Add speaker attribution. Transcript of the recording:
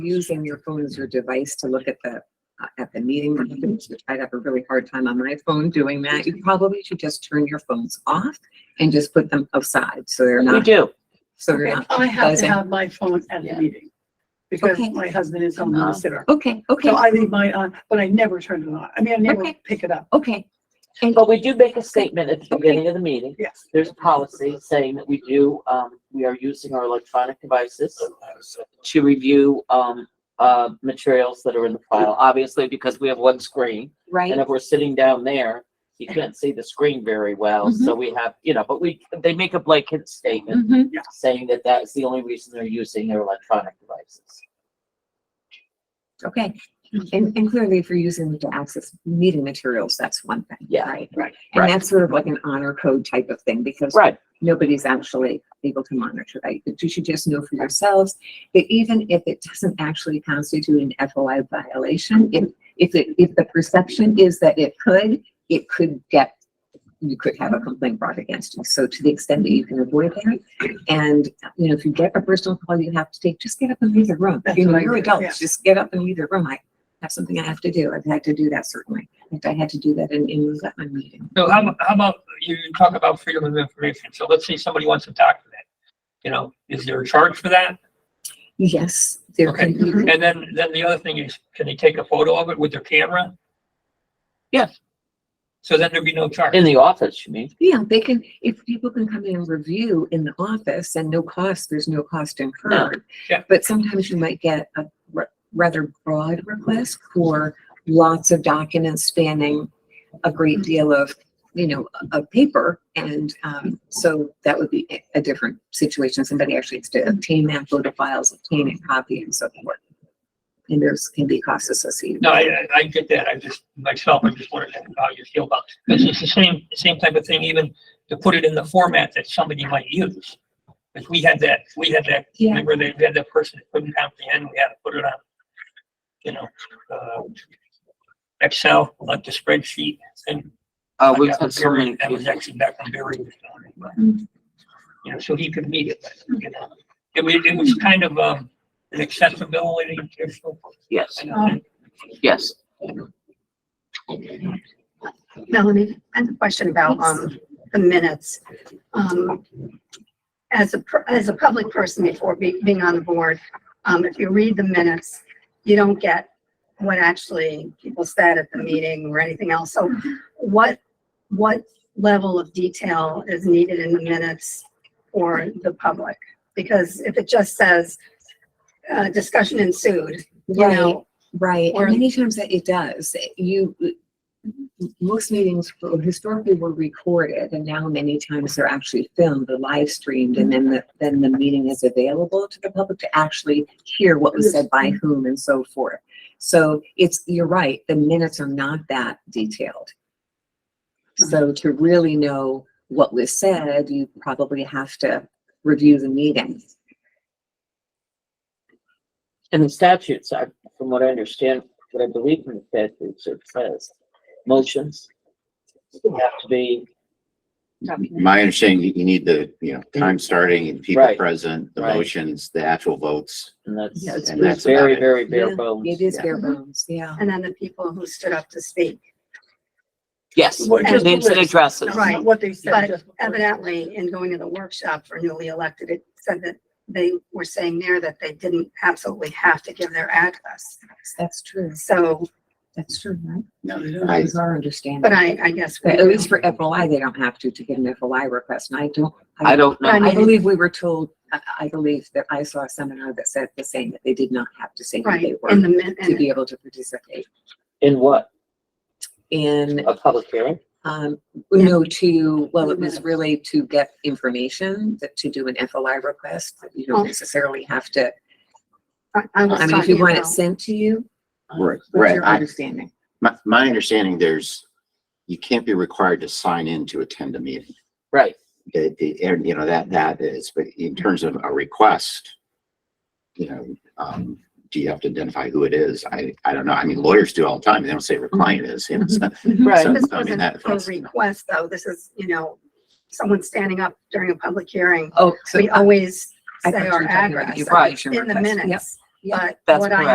Speaker 1: using your phone as your device to look at the, uh, at the meeting,
Speaker 2: Mm-hmm.
Speaker 1: minutes, which I'd have a really hard time on my phone doing that. You probably should just turn your phones off and just put them aside, so they're
Speaker 3: We
Speaker 1: not,
Speaker 3: do.
Speaker 1: so they're
Speaker 2: Okay,
Speaker 1: not.
Speaker 2: I have to
Speaker 1: buzzing.
Speaker 2: have my phone at the
Speaker 3: Yeah.
Speaker 2: meeting because
Speaker 1: Okay.
Speaker 2: my husband is home
Speaker 3: Uh-huh.
Speaker 2: with sitter.
Speaker 1: Okay, okay,
Speaker 2: So I leave mine on, but I never turn it on. I mean, I never
Speaker 1: Okay.
Speaker 2: pick it up.
Speaker 1: okay,
Speaker 3: But we do make a statement at the beginning of the meeting.
Speaker 2: Yes.
Speaker 3: There's a policy saying that we do, um, we are using our electronic devices to review, um, uh, materials that are in the file, obviously because we have one screen.
Speaker 1: right?
Speaker 3: And if we're sitting down there, you can't see the screen very well. So we have, you know, but we, they make a blanket statement
Speaker 1: Mhm.
Speaker 3: saying that that's the only reason they're using their electronic devices.
Speaker 1: Okay, and, and clearly if you're using it to access meeting materials, that's one thing,
Speaker 3: Yeah,
Speaker 1: right?
Speaker 2: right,
Speaker 1: And
Speaker 3: right.
Speaker 1: that's sort of like an honor code type of thing, because
Speaker 3: Right.
Speaker 1: nobody's actually able to monitor that. But you should just know for yourselves that even if it doesn't actually constitute an FOI violation, if, if it, if the perception is that it could, it could get, you could have a complaint brought against you. So to the extent that you can avoid that, and, you know, if you get a personal call you have to take, just get up and leave the room.
Speaker 2: That's
Speaker 1: You know,
Speaker 2: what I
Speaker 1: you're
Speaker 2: do,
Speaker 1: adults,
Speaker 2: yeah.
Speaker 1: just get up and leave the room. I have something I have to do. I've had to do that certainly. In fact, I had to do that in, in my meeting.
Speaker 4: So how, ab- how about, you talk about freedom of information, so let's say somebody wants to document, you know, is there a charge for that?
Speaker 1: Yes, there can
Speaker 4: Okay.
Speaker 1: be
Speaker 2: Mm-hmm.
Speaker 4: And then, then the other thing is, can they take a photo of it with their camera?
Speaker 3: Yes.
Speaker 4: So then there'd be no charge.
Speaker 3: In the office, you mean?
Speaker 1: Yeah, they can, if people can come in and review in the office and no cost, there's no cost incurred.
Speaker 4: yeah.
Speaker 1: But sometimes you might get a ra- rather broad request for lots of documents spanning a
Speaker 4: Mm-hmm.
Speaker 1: great deal of, you know, of paper. And um, so that would be a- a different situation. Somebody actually has
Speaker 4: Mm-hmm.
Speaker 1: to obtain that photo files, obtain a copy and so forth. And there's can be costs associated.
Speaker 4: No, I, I- I get that, I just, myself, I just wondered how you feel about it. Because it's the same, same type of thing, even to put it in the format that somebody might use. Because we had that, we had that,
Speaker 1: Yeah.
Speaker 4: remember, they had that person that couldn't comprehend, we had to put it on, you know, uh, Excel, like the spreadsheet, and
Speaker 3: Uh,
Speaker 4: I
Speaker 3: we've
Speaker 4: got
Speaker 3: had so
Speaker 4: Barry-
Speaker 3: many.
Speaker 4: That was
Speaker 3: people-
Speaker 4: actually back from Barry. this morning, but,
Speaker 1: Mm.
Speaker 4: You know, so he could meet it, but, you know, it was, it was kind of, um, an accessibility issue.
Speaker 3: Yes,
Speaker 4: I know
Speaker 1: Oh.
Speaker 4: that-
Speaker 3: yes.
Speaker 5: Melanie, I have a question about, um, the minutes. Um, as a, per- as a public person before be- being on the board, um, if you read the minutes, you don't get what actually people said at the meeting or anything else. So what, what level of detail is needed in the minutes for the public? Because if it just says, uh, discussion ensued, you
Speaker 1: Right.
Speaker 5: know,
Speaker 1: Right,
Speaker 5: Or-
Speaker 1: and many times that it does. You, most meetings were- historically were recorded and now many times they're actually filmed, they're live streamed and then the, then the meeting is available to the public to actually hear what was said by whom and so forth. So it's, you're right, the minutes are not that detailed. So to really know what was said, you probably have to review the meeting.
Speaker 3: And the statutes, I, from what I understand, what I believe in the statutes, it says motions have to be,
Speaker 6: My understanding, you you need the, you know, time starting and people
Speaker 3: Right.
Speaker 6: present, the
Speaker 3: Right.
Speaker 6: motions, the actual votes.
Speaker 3: and that's,
Speaker 1: Yeah, it's
Speaker 3: and
Speaker 6: pretty-
Speaker 3: that's very, very
Speaker 1: Yeah,
Speaker 3: bare bones.
Speaker 1: It is
Speaker 6: Yeah.
Speaker 1: bare bones, yeah.
Speaker 5: and then the people who stood up to speak.
Speaker 3: Yes,
Speaker 2: Well, just the
Speaker 3: names and
Speaker 2: list.
Speaker 3: addresses.
Speaker 5: Right.
Speaker 2: Not What they said.
Speaker 5: But
Speaker 2: just what-
Speaker 5: evidently, in going to the workshop for newly elected, it said that they were saying there that they didn't absolutely have to give their address.
Speaker 1: That's true.
Speaker 5: So,
Speaker 1: That's true, right?
Speaker 6: No,
Speaker 1: That
Speaker 6: I,
Speaker 1: was our understanding.
Speaker 5: but I, I guess.
Speaker 1: But At least for FOI, they don't have to, to get an FOI request, and I don't.
Speaker 3: I don't know.
Speaker 5: Right.
Speaker 1: I believe we were told, I, I believe that I saw a seminar that said the same, that they did not have to say who
Speaker 5: Right,
Speaker 1: they were
Speaker 5: in the, min-
Speaker 1: to
Speaker 5: and
Speaker 1: be able to participate
Speaker 3: In what?
Speaker 1: in,
Speaker 3: A public hearing?
Speaker 1: um, you know, to, well, it was really to get information, that to do an FOI request, that you
Speaker 5: Oh.
Speaker 1: don't necessarily have to,
Speaker 5: I- I was
Speaker 1: I mean, if you
Speaker 5: talking
Speaker 1: want it
Speaker 5: about,
Speaker 1: sent to you,
Speaker 6: right,
Speaker 1: what's
Speaker 6: right.
Speaker 1: your
Speaker 6: I,
Speaker 1: understanding?
Speaker 6: my, my understanding, there's, you can't be required to sign in to attend a meeting.
Speaker 3: Right.
Speaker 6: It- it- and you know, that, that is, but in terms of a request, you know, um, do you have to identify who it is? I, I don't know. I mean, lawyers do all the time. They don't say what client is, you know, so-
Speaker 3: Right.
Speaker 5: this
Speaker 6: I mean,
Speaker 5: wasn't
Speaker 6: that-
Speaker 5: a request, though. This is, you know, someone standing up during a public hearing.
Speaker 1: Oh, so.
Speaker 5: We always
Speaker 1: I
Speaker 5: say
Speaker 1: thought you
Speaker 5: our
Speaker 1: were talking about
Speaker 5: address
Speaker 1: the application
Speaker 5: in the
Speaker 1: request. Yep.
Speaker 5: minutes.
Speaker 7: Yeah.
Speaker 8: but
Speaker 5: That's
Speaker 8: what I
Speaker 5: correct.